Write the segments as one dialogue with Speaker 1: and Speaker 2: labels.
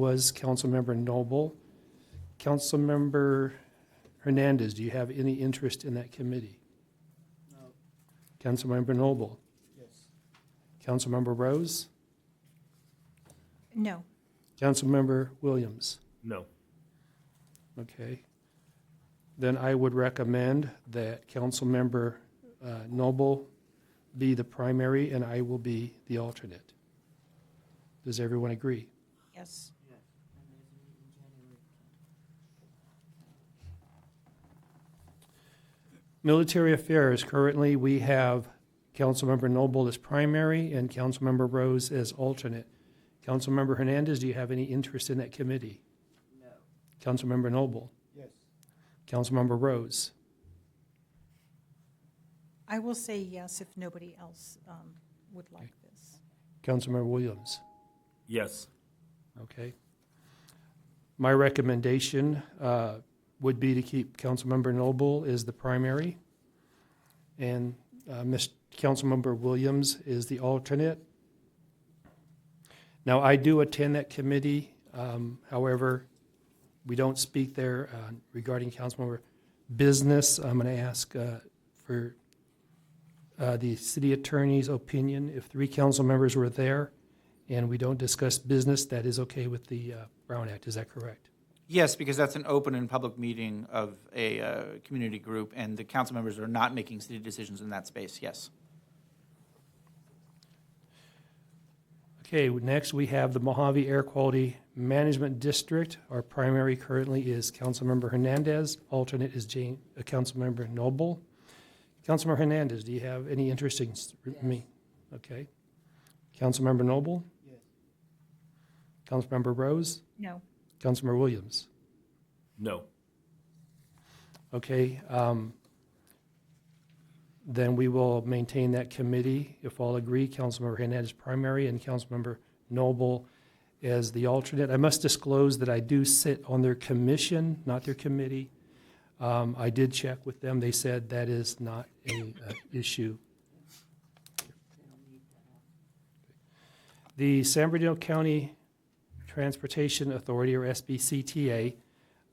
Speaker 1: was Councilmember Noble. Councilmember Hernandez, do you have any interest in that committee? No. Councilmember Noble? Yes. Councilmember Rose?
Speaker 2: No.
Speaker 1: Councilmember Williams?
Speaker 3: No.
Speaker 1: Okay. Then I would recommend that Councilmember uh, Noble be the primary and I will be the alternate. Does everyone agree?
Speaker 2: Yes.
Speaker 1: Military Affairs, currently, we have Councilmember Noble as primary and Councilmember Rose as alternate. Councilmember Hernandez, do you have any interest in that committee? No. Councilmember Noble? Yes. Councilmember Rose?
Speaker 2: I will say yes if nobody else um, would like this.
Speaker 1: Councilmember Williams?
Speaker 3: Yes.
Speaker 1: Okay. My recommendation uh, would be to keep Councilmember Noble as the primary, and uh, Miss Councilmember Williams is the alternate. Now, I do attend that committee, um, however, we don't speak there uh, regarding councilmember business. I'm going to ask uh, for uh, the city attorney's opinion. If three council members were there, and we don't discuss business, that is okay with the uh, Brown Act, is that correct?
Speaker 4: Yes, because that's an open and public meeting of a uh, community group, and the council members are not making city decisions in that space, yes.
Speaker 1: Okay, next we have the Mojave Air Quality Management District. Our primary currently is Councilmember Hernandez, alternate is Jane, uh, Councilmember Noble. Councilmember Hernandez, do you have any interest in s- me? Okay. Councilmember Noble? Yes. Councilmember Rose?
Speaker 2: No.
Speaker 1: Councilmember Williams?
Speaker 3: No.
Speaker 1: Okay, um, then we will maintain that committee. If all agree, Councilmember Hernandez primary and Councilmember Noble as the alternate. I must disclose that I do sit on their commission, not their committee. Um, I did check with them. They said that is not an issue. The San Bernardino County Transportation Authority, or SBCTA,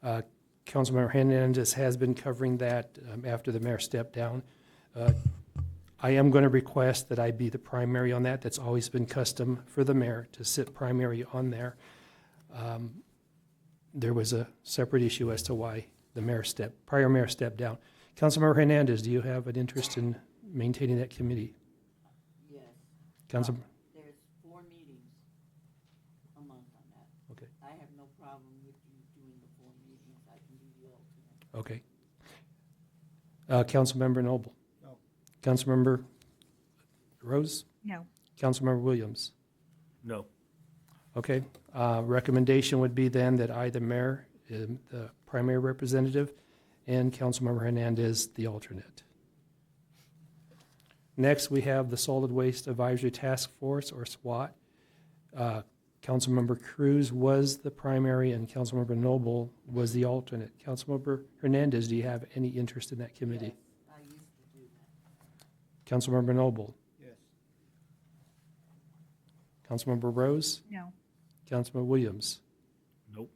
Speaker 1: uh, Councilmember Hernandez has been covering that um, after the mayor stepped down. Uh, I am going to request that I be the primary on that. That's always been custom for the mayor to sit primary on there. Um, There was a separate issue as to why the mayor stepped, prior mayor stepped down. Councilmember Hernandez, do you have an interest in maintaining that committee?
Speaker 5: Yes,
Speaker 1: Council,
Speaker 5: there's four meetings a month on that.
Speaker 1: Okay.
Speaker 5: I have no problem with you doing the four meetings, I can be the alternate.
Speaker 1: okay. Uh, Councilmember Noble?
Speaker 4: No.
Speaker 1: Councilmember Rose?
Speaker 2: No.
Speaker 1: Councilmember Williams?
Speaker 3: No.
Speaker 1: Okay, uh, recommendation would be then that I, the mayor, am the primary representative, and Councilmember Hernandez, the alternate. Next, we have the Solid Waste Advisory Task Force, or SWAT. Uh, Councilmember Cruz was the primary, and Councilmember Noble was the alternate. Councilmember Hernandez, do you have any interest in that committee?
Speaker 5: Yes, I used to do that.
Speaker 1: Councilmember Noble?
Speaker 4: Yes.
Speaker 1: Councilmember Rose?
Speaker 2: No.
Speaker 1: Councilmember Williams?
Speaker 3: Nope.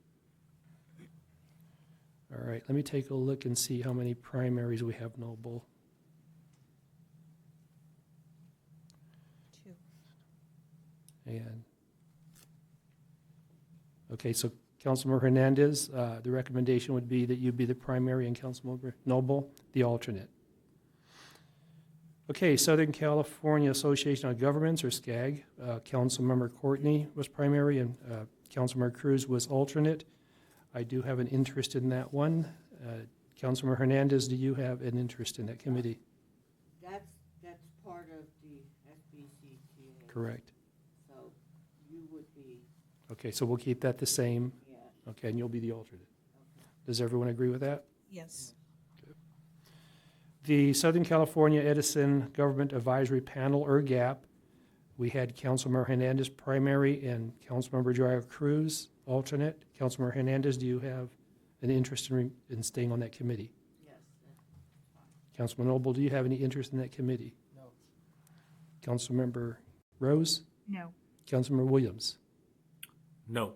Speaker 1: All right, let me take a look and see how many primaries we have Noble.
Speaker 2: Two.
Speaker 1: And, okay, so Councilmember Hernandez, uh, the recommendation would be that you be the primary and Councilmember Noble, the alternate. Okay, Southern California Association of Governments, or SCAG, uh, Councilmember Courtney was primary and uh, Councilmember Cruz was alternate. I do have an interest in that one. Uh, Councilmember Hernandez, do you have an interest in that committee?
Speaker 5: That's, that's part of the SBCTA.
Speaker 1: Correct.
Speaker 5: So you would be,
Speaker 1: Okay, so we'll keep that the same.
Speaker 5: yeah,
Speaker 1: Okay, and you'll be the alternate.
Speaker 5: okay.
Speaker 1: Does everyone agree with that?
Speaker 2: Yes.
Speaker 1: The Southern California Edison Government Advisory Panel, or GAP, we had Councilmember Hernandez primary and Councilmember Dreyer Cruz alternate. Councilmember Hernandez, do you have an interest in, re- in staying on that committee?
Speaker 5: yes, that's fine.
Speaker 1: Councilman Noble, do you have any interest in that committee?
Speaker 5: No.
Speaker 1: Councilmember Rose?
Speaker 2: No.
Speaker 1: Councilmember Williams?
Speaker 3: No.